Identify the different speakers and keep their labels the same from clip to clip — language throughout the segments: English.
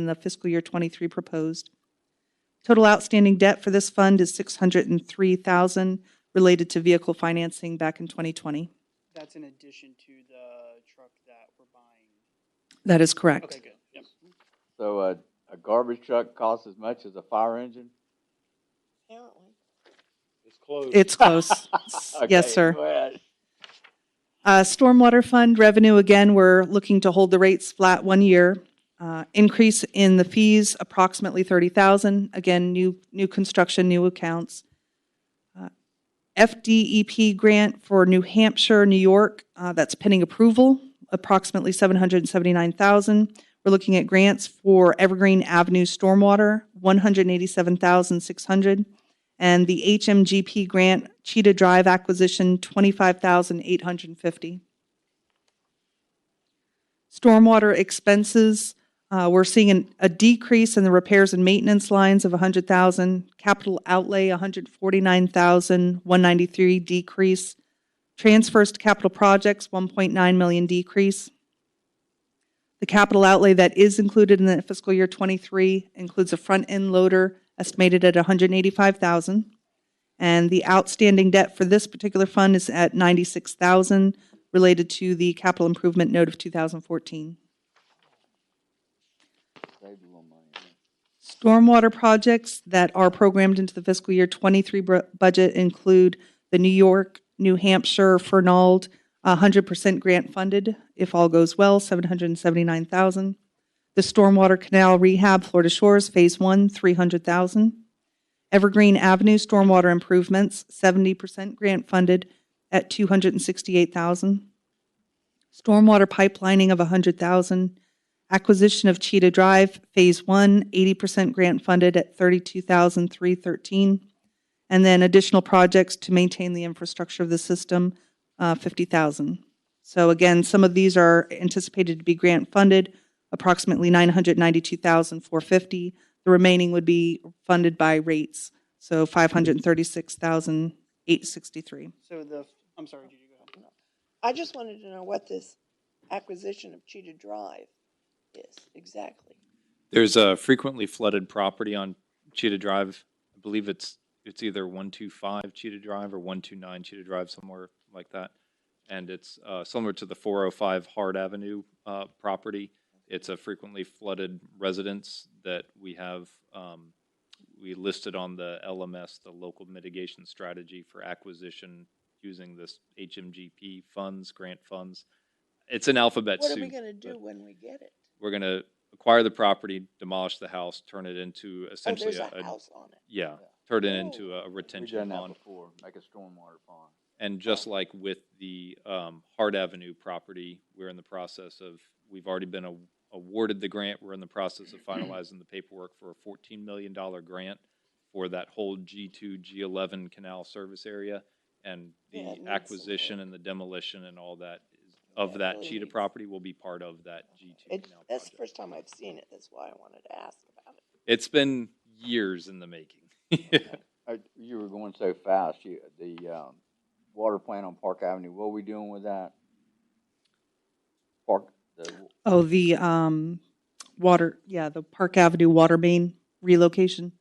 Speaker 1: in the fiscal year 23 proposed. Total outstanding debt for this fund is 603,000 related to vehicle financing back in 2020.
Speaker 2: That's in addition to the truck that we're buying.
Speaker 1: That is correct.
Speaker 2: Okay, good, yep.
Speaker 3: So a, a garbage truck costs as much as a fire engine?
Speaker 4: Apparently.
Speaker 5: It's closed.
Speaker 1: It's close.
Speaker 3: Okay,
Speaker 1: Yes, sir.
Speaker 3: go ahead.
Speaker 1: Uh, Stormwater fund revenue, again, we're looking to hold the rates flat one year. Uh, Increase in the fees, approximately 30,000. Again, new, new construction, new accounts. Uh, FDEP grant for New Hampshire, New York, uh, that's pending approval, approximately 779,000. We're looking at grants for Evergreen Avenue Stormwater, 187,600 and the HMGP grant Cheetah Drive acquisition, 25,850. Stormwater expenses, uh, we're seeing an- a decrease in the repairs and maintenance lines of 100,000, capital outlay 149,193 decrease, transfers to capital projects 1.9 million decrease. The capital outlay that is included in the fiscal year '23 includes a front-end loader estimated at $185,000. And the outstanding debt for this particular fund is at $96,000 related to the capital improvement note of 2014.
Speaker 3: Saved a little money, huh?
Speaker 1: Stormwater projects that are programmed into the fiscal year 23 br- budget include the New York, New Hampshire, Fernald, 100% grant funded, if all goes well, 779,000. The Stormwater Canal Rehab Florida Shores Phase 1, 300,000. Evergreen Avenue Stormwater Improvements, 70% grant funded at 268,000. Stormwater pipelining of 100,000. Acquisition of Cheetah Drive, Phase One, 80% grant funded at 32,313. And then additional projects to maintain the infrastructure of the system, uh, 50,000. So again, some of these are anticipated to be grant funded, approximately 992,450. The remaining would be funded by rates, so 536,863.
Speaker 2: So the, I'm sorry, did you go ahead?
Speaker 4: I just wanted to know what this acquisition of Cheetah Drive is exactly.
Speaker 6: There's a frequently flooded property on Cheetah Drive. I believe it's, it's either one two five Cheetah Drive or one two nine Cheetah Drive, somewhere like that. And it's uh, similar to the four oh five Hard Avenue uh, property. It's a frequently flooded residence that we have, um, we listed on the LMS, the local mitigation strategy for acquisition using this HMGP funds, grant funds. It's an alphabet
Speaker 4: What
Speaker 6: soup.
Speaker 4: are we gonna do
Speaker 6: but-
Speaker 4: when we get it?
Speaker 6: we're gonna acquire the property, demolish the house, turn it into
Speaker 4: Oh,
Speaker 6: essentially
Speaker 4: there's
Speaker 6: a,
Speaker 4: a
Speaker 6: a-
Speaker 4: house on it.
Speaker 6: yeah, turn it
Speaker 4: Oh.
Speaker 6: into a
Speaker 3: We've
Speaker 6: retention
Speaker 3: done that
Speaker 6: pond.
Speaker 3: before, make a stormwater pond.
Speaker 6: And just like with the, um, Hart Avenue property, we're in the process of, we've already been a- awarded the grant. We're in the process of finalizing the paperwork for a fourteen million dollar grant for that whole G two, G eleven canal service area. And
Speaker 4: Yeah, it needs
Speaker 6: the
Speaker 4: some
Speaker 6: acquisition
Speaker 4: work.
Speaker 6: and the demolition and all that is-
Speaker 4: Yeah,
Speaker 6: of
Speaker 4: it
Speaker 6: that
Speaker 4: really
Speaker 6: Cheetah
Speaker 4: needs-
Speaker 6: property will be part of that G two
Speaker 4: It,
Speaker 6: canal
Speaker 4: that's the
Speaker 6: project.
Speaker 4: first time I've seen it, that's why I wanted to ask about it.
Speaker 6: It's been years in the making.
Speaker 3: Uh, You were going so fast, you, the, um, water plant on Park Avenue, what are we doing with that? Park, the,
Speaker 1: Oh, the um, water, yeah, the Park Avenue water main relocation.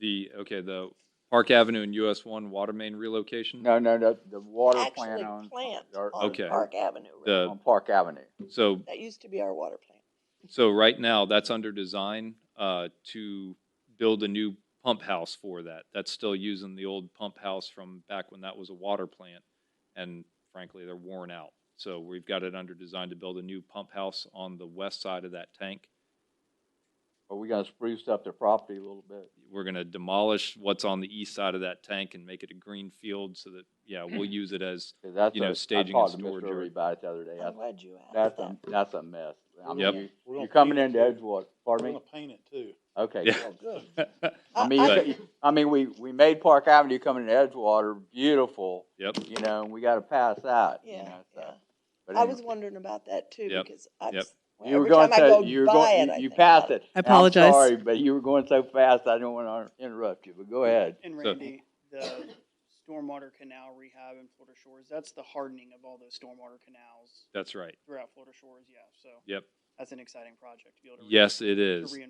Speaker 6: the okay, the Park Avenue and US One water main relocation.
Speaker 3: no, no, the, the water plant
Speaker 4: Actually,
Speaker 3: on.
Speaker 4: plant
Speaker 3: or-
Speaker 4: on
Speaker 6: Okay. Uh,
Speaker 4: Park Avenue, right?
Speaker 6: The
Speaker 3: On Park Avenue.
Speaker 6: so
Speaker 4: that used to be our water plant.
Speaker 6: so right now that's under design uh, to build a new pump house for that. That's still using the old pump house from back when that was a water plant, and frankly they're worn out. So we've got it under design to build a new pump house on the west side of that tank.
Speaker 3: Are we gonna spruce up the property a little bit?
Speaker 6: we're gonna demolish what's on the east side of that tank and make it a green field so that, yeah, we'll use it as,
Speaker 3: 'Cause that's
Speaker 6: You know,
Speaker 3: a-
Speaker 6: staging
Speaker 3: I
Speaker 6: and
Speaker 3: talked to
Speaker 6: storage
Speaker 3: Mr.
Speaker 6: area.
Speaker 3: Irby about it the other day. I-
Speaker 4: I'm glad you asked
Speaker 3: That's a,
Speaker 4: that.
Speaker 3: that's a mess. I mean,
Speaker 6: Yep.
Speaker 3: you-
Speaker 5: We're gonna
Speaker 3: You're coming
Speaker 5: paint
Speaker 3: into
Speaker 5: it too.
Speaker 3: Edgewater, pardon
Speaker 5: We're
Speaker 3: me?
Speaker 5: gonna paint it too.
Speaker 3: Okay.
Speaker 6: Yeah.
Speaker 3: good.
Speaker 4: Good.
Speaker 3: I mean,
Speaker 4: I-
Speaker 3: you- I mean, we, we made Park Avenue coming to Edgewater beautiful,
Speaker 6: yep,
Speaker 3: you know, and we gotta pass that, you
Speaker 4: Yeah,
Speaker 3: know,
Speaker 4: yeah.
Speaker 3: so. But
Speaker 4: I
Speaker 3: anyway,
Speaker 4: was wondering about that too,
Speaker 6: Yep,
Speaker 4: because I've,
Speaker 6: yep.
Speaker 4: s- well,
Speaker 3: You were
Speaker 4: every
Speaker 3: going
Speaker 4: time
Speaker 3: so,
Speaker 4: I go
Speaker 3: you were
Speaker 4: by it,
Speaker 3: going,
Speaker 4: I
Speaker 3: you- you
Speaker 4: think
Speaker 3: passed
Speaker 4: about
Speaker 3: it.
Speaker 1: I
Speaker 3: I'm
Speaker 1: apologize.
Speaker 3: Sorry, but you were going so fast, I don't wanna interrupt you, but go ahead.
Speaker 2: And
Speaker 6: So-
Speaker 2: Randy, the stormwater canal rehab in Florida Shores, that's the hardening of all those stormwater canals
Speaker 6: that's right,
Speaker 2: throughout Florida Shores, yeah, so.
Speaker 6: yep. that's an exciting project to be able to. re-
Speaker 2: Yes, it
Speaker 6: To
Speaker 2: is.
Speaker 6: reinvest